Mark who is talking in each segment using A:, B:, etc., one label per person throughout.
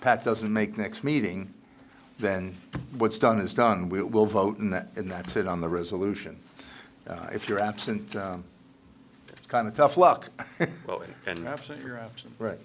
A: Pat doesn't make next meeting, then what's done is done. We- We'll vote, and that- and that's it on the resolution. Uh, If you're absent, um, it's kind of tough luck.
B: Well, and- and,
C: Absent, you're absent.
A: Right.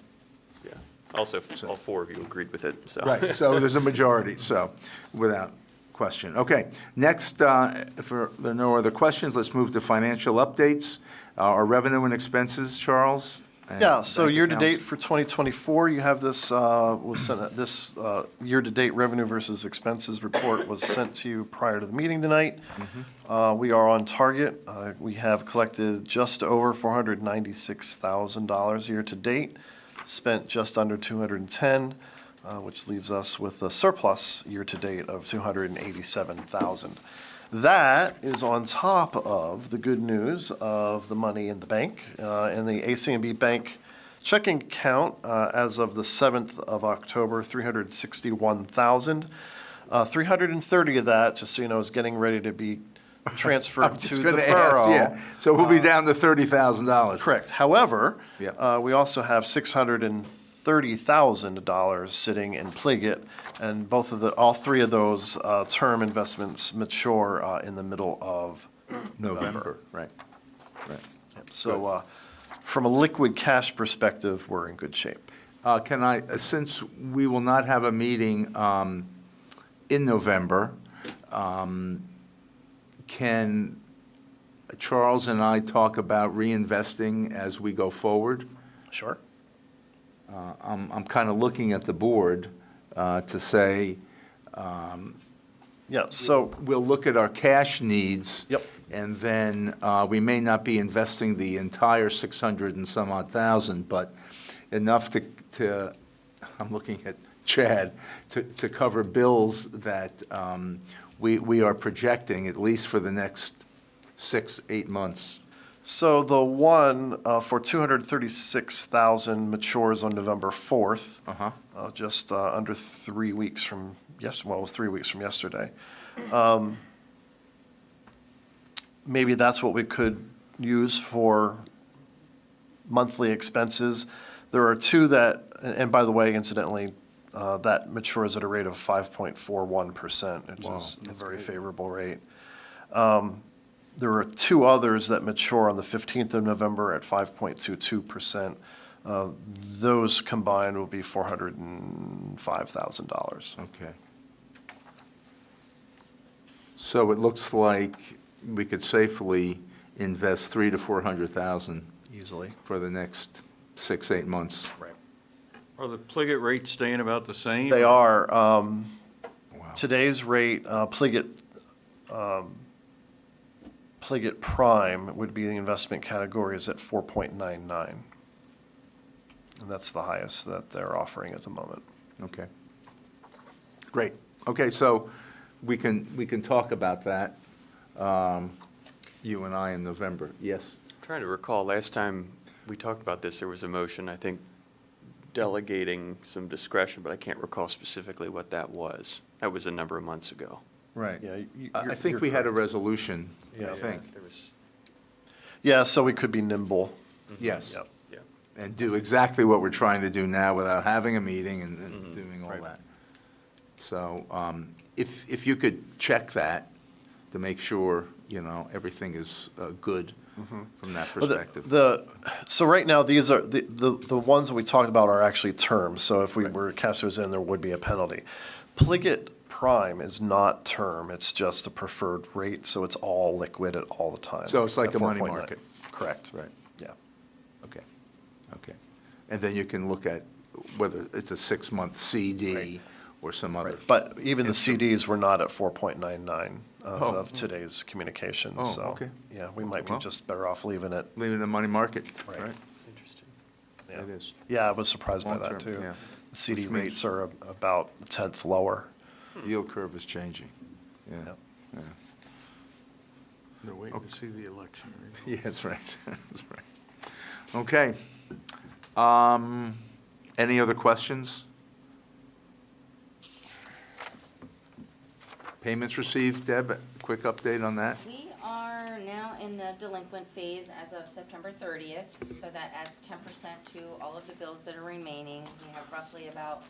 B: yeah, also, f- all four of you agreed with it, so.
A: Right, so there's a majority, so, without question. Okay, next, uh, if there are no other questions, let's move to financial updates. Uh, Our revenue and expenses, Charles? and
D: Yeah, so
A: bank
D: year-to-date
A: accounts.
D: for 2024, you have this, uh, was sent, this uh, year-to-date revenue versus expenses report was sent to you prior to the meeting tonight. Uh, We are on target. Uh, We have collected just over $496,000 year-to-date, spent just under 210, uh, which leaves us with a surplus year-to-date of 287,000. That is on top of the good news of the money in the bank, uh, in the ACMB Bank checking account uh, as of the 7th of October, 361,000. Uh, 330 of that, just so you know, is getting ready to be
A: I'm
D: transferred to
A: just
D: the
A: going to ask,
D: borough. uh,
A: yeah. So we'll be down to $30,000.
D: Correct. However,
A: Yeah.
D: uh, we also have $630,000 sitting in Pliget, and both of the, all three of those uh, term investments mature uh, in the middle of
A: November, right. right.
D: So uh, from a liquid cash perspective, we're in good shape.
A: Uh, Can I, uh, since we will not have a meeting um, in November, um, can Charles and I talk about reinvesting as we go forward?
D: Sure.
A: Uh, I'm, I'm kind of looking at the board uh, to say,
D: Yeah, so,
A: we'll look at our cash needs.
D: Yep.
A: And then uh, we may not be investing the entire 600 and some odd thousand, but enough to, to, I'm looking at Chad, to, to cover bills that um, we, we are projecting, at least for the next six, eight months.
D: so the one uh, for 236,000 matures on November 4th.
A: Uh-huh.
D: uh, Just uh, under three weeks from, yes, well, it was three weeks from yesterday. Um, Maybe that's what we could use for monthly expenses. There are two that, and and by the way, incidentally, uh, that matures at a rate of 5.41%,
A: Wow,
D: which is a very favorable rate. Um, There are two others that mature on the 15th of November at 5.22%. Uh, Those combined will be $405,000.
A: Okay. So it looks like we could safely invest three to 400,000
D: Easily.
A: for the next six, eight months.
D: Right.
C: Are the Pliget rates staying about the same?
D: They are. um,
A: Wow.
D: Today's rate, uh, Pliget, um, Pliget Prime would be the investment category is at 4.99. And that's the highest that they're offering at the moment.
A: Okay. Great. Okay, so we can, we can talk about that, um, you and I in November. Yes?
B: Trying to recall, last time we talked about this, there was a motion, I think, delegating some discretion, but I can't recall specifically what that was. That was a number of months ago.
A: Right.
D: Yeah, you- you-
A: I I
D: you're-
A: think
D: you're
A: we had a
D: correct.
A: resolution, I
D: Yeah.
A: think.
B: There was,
D: Yeah, so we could be nimble.
A: Yes.
D: Mm-hmm. Yep.
B: yeah.
A: And do exactly what we're trying to do now without having a meeting and- and doing all
D: Mm-hmm. Right.
A: that. So um, if, if you could check that to make sure, you know, everything is uh, good from that
D: Mm-hmm. Well, the-
A: perspective.
D: The, so right now, these are, the, the the ones that we talked about are actually terms, so if we were to cash those in, there would be a penalty. Pliget Prime is not term, it's just a preferred rate, so it's all liquid at all the time.
A: So it's like
D: at
A: a money
D: 4.9.
A: market.
D: Correct.
A: Right.
D: Yeah.
A: Okay, okay. And then you can look at whether it's a six-month CD
D: Right.
A: or some other.
D: But even the CDs were not at 4.99 as
A: Oh.
D: uh, of today's communication,
A: Oh,
D: so.
A: okay.
D: Yeah, we might be
A: Well.
D: just better off leaving it.
A: Leaving the money market,
D: Right.
A: right?
B: Interesting.
D: yeah.
A: It is.
D: Yeah, I was surprised by
A: Long-term,
D: that, too.
A: yeah.
D: The CD
A: Which means-
D: rates are a- about a tenth lower.
A: Yield curve is changing, yeah.
D: Yep.
A: yeah.
C: They're waiting to see the election. results.
A: Yeah, that's right, that's right. Okay. Um, Any other questions? Payments received, Deb, quick update on that?
E: We are now in the delinquent phase as of September thirtieth, so that adds ten percent to all of the bills that are remaining. We have roughly about